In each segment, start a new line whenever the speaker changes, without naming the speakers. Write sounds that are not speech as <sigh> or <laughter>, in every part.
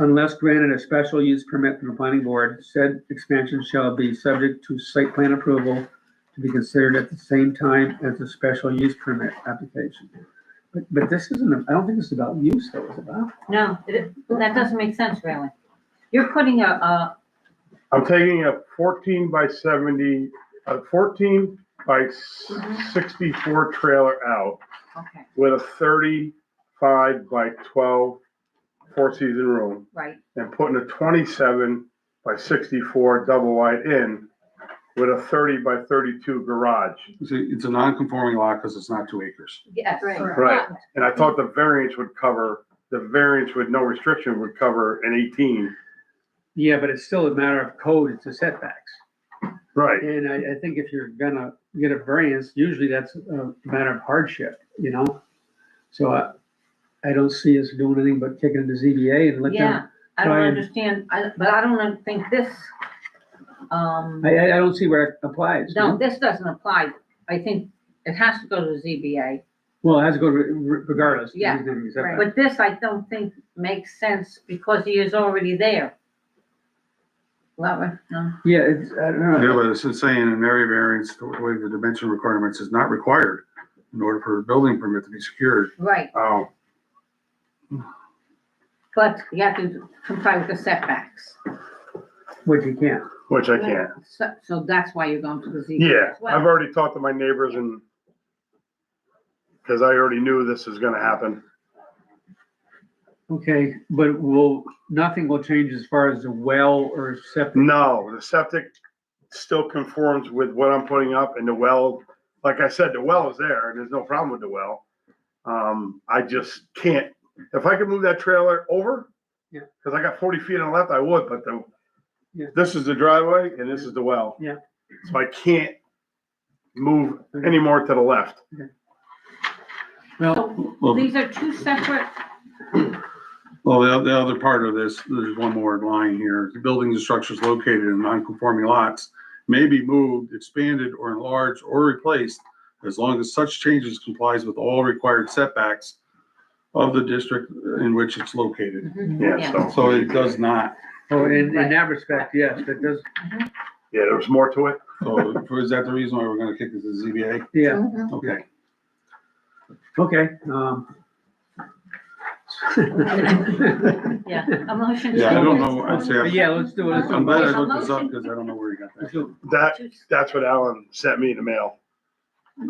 Unless granted a special use permit from the planning board, said expansion shall be subject to site plan approval to be considered at the same time as the special use permit application. But, but this isn't, I don't think this is about use though, it's about,
No, it- that doesn't make sense, really. You're putting a, a,
I'm taking a fourteen by seventy, a fourteen by sixty-four trailer out
okay,
with a thirty-five by 12 4 four-season room
right,
and putting a twenty-seven by sixty-four double wide in with a thirty by thirty-two garage.
It's a, it's a non-conforming lot because it's not two acres.
yes.
Right.
Right. And I thought the variance would cover, the variance with no restriction would cover an eighteen.
yeah, but it's still a matter of code, it's the setbacks.
Right.
And I, I think if you're gonna get a variance, usually that's a matter of hardship, you know? So I, I don't see us doing anything but kicking it to ZBA and let
Yeah,
them,
I don't
try and-
understand, I, but I don't think this, um,
I, I I don't see where it applies. you
no,
know?
this doesn't apply. I think it has to go to ZBA,
Well, it has to go re- re- regardless. of
Yeah,
anything except that.
but this I don't think makes sense because he is already there. uh, Lover, no,
Yeah, it's, I don't
Yeah,
know.
but it's just saying an area variance, the way the dimension requirements is not required in order for a building permit to be secured.
right,
Oh,
but you have to comply with the setbacks.
Which you can't.
Which I can't.
So, so that's why you're going to the ZBA.
Yeah,
as well.
I've already talked to my neighbors and, because I already knew this is gonna happen.
Okay, but will, nothing will change as far as the well or septic.
No, the septic still conforms with what I'm putting up and the well, like I said, the well is there and there's no problem with the well. Um, I just can't, if I could move that trailer over.
Yeah.
Cause I got forty feet on the left, I would, but the,
Yeah.
this is the driveway and this is the well.
Yeah.
So I can't move any more to the left.
Well,
So
well,
these are two separate,
well, the, the other part of this, there's one more line here. The buildings and structures located in non-conforming lots may be moved, expanded, or enlarged or replaced as long as such changes complies with all required setbacks of the district in which it's located.
Yeah, so,
So it does not.
so Oh, in, in that respect, yes, that does,
yeah, there was more to it.
So is that the reason why we're gonna kick it to the ZBA?
yeah,
Okay.
okay, um. <laughs>
yeah, a motion. to-
Yeah, I don't know. I'd say
But
I'm,
Yeah, let's do it.
I'm glad I looked this up because I don't know where you got
Let's
that.
do it.
That, that's what Alan sent me in the mail.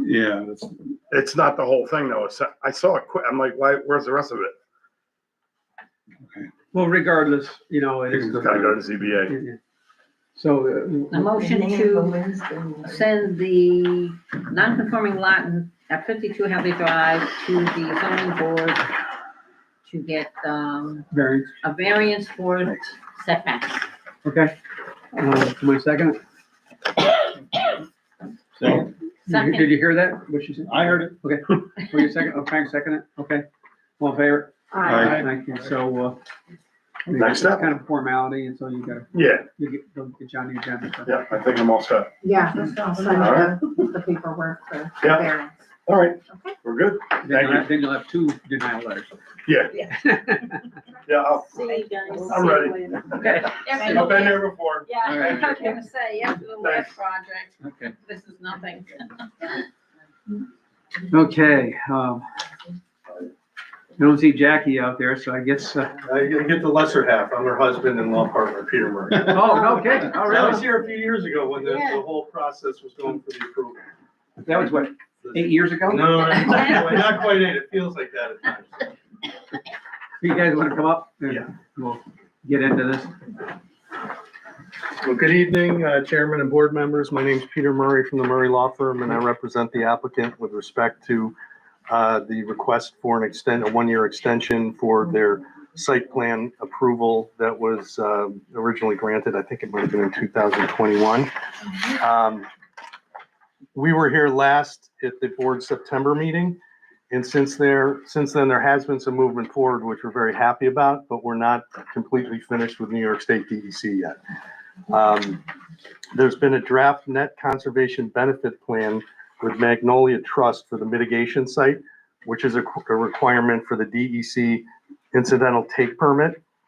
Yeah, that's,
It's not the whole thing though. It's, I saw it quick. I'm like, why, where's the rest of it?
Well, regardless, you know, it is.
Gotta go to ZBA.
So,
A
uh,
motion to send the non-conforming lot in- at fifty-two Hadley Drive to the zoning board to get, um,
variance,
a variance for setbacks.
okay. Uh, my second,
so
did you-
Second.
did you hear that, what she said?
I heard it.
Okay, were you second, oh, Frank second it, okay, all in favor?
Aye.
Thank you, so, uh, I think
Next
it's
up.
Kind of formality, and so you gotta,
Yeah,
you get, don't get Johnny agenda. so.
yeah, I think I'm all set.
Yeah, send
Alright.
the the paperwork for the
Yeah.
variance.
All right,
Okay.
we're good.
Then you'll have- then you'll have two denial letters.
Yeah, yeah, I'll-
See you guys.
I'm ready.
Okay.
I've been there before.
Yeah,
I was
gonna say, after the
last
project,
Okay.
this is nothing.
Okay, um, I don't see Jackie out there, so I guess, uh,
I get the lesser half. I'm her husband and law partner, Peter <laughs> Murray.
oh, okay, all
I
right,
was here a few years ago when the,
Yeah.
the whole process was going for the approval.
that was what, eight years ago?
No, no, no, not quite- <laughs> not quite eight. It feels like that at times.
You guys wanna come up?
Yeah.
We'll get into this.
Well, good evening, uh, Chairman and board members. My name's Peter Murray from the Murray Law Firm, and I represent the applicant with respect to uh, the request for an extend, a one-year extension for their site plan approval that was um, originally granted, I think it might have been in 2021. Um, We were here last at the board's September meeting, and since there, since then, there has been some movement forward, which we're very happy about, but we're not completely finished with New York State DEC yet. Um, There's been a draft net conservation benefit plan with Magnolia Trust for the mitigation site, which is a a requirement for the DEC E incidental take permit.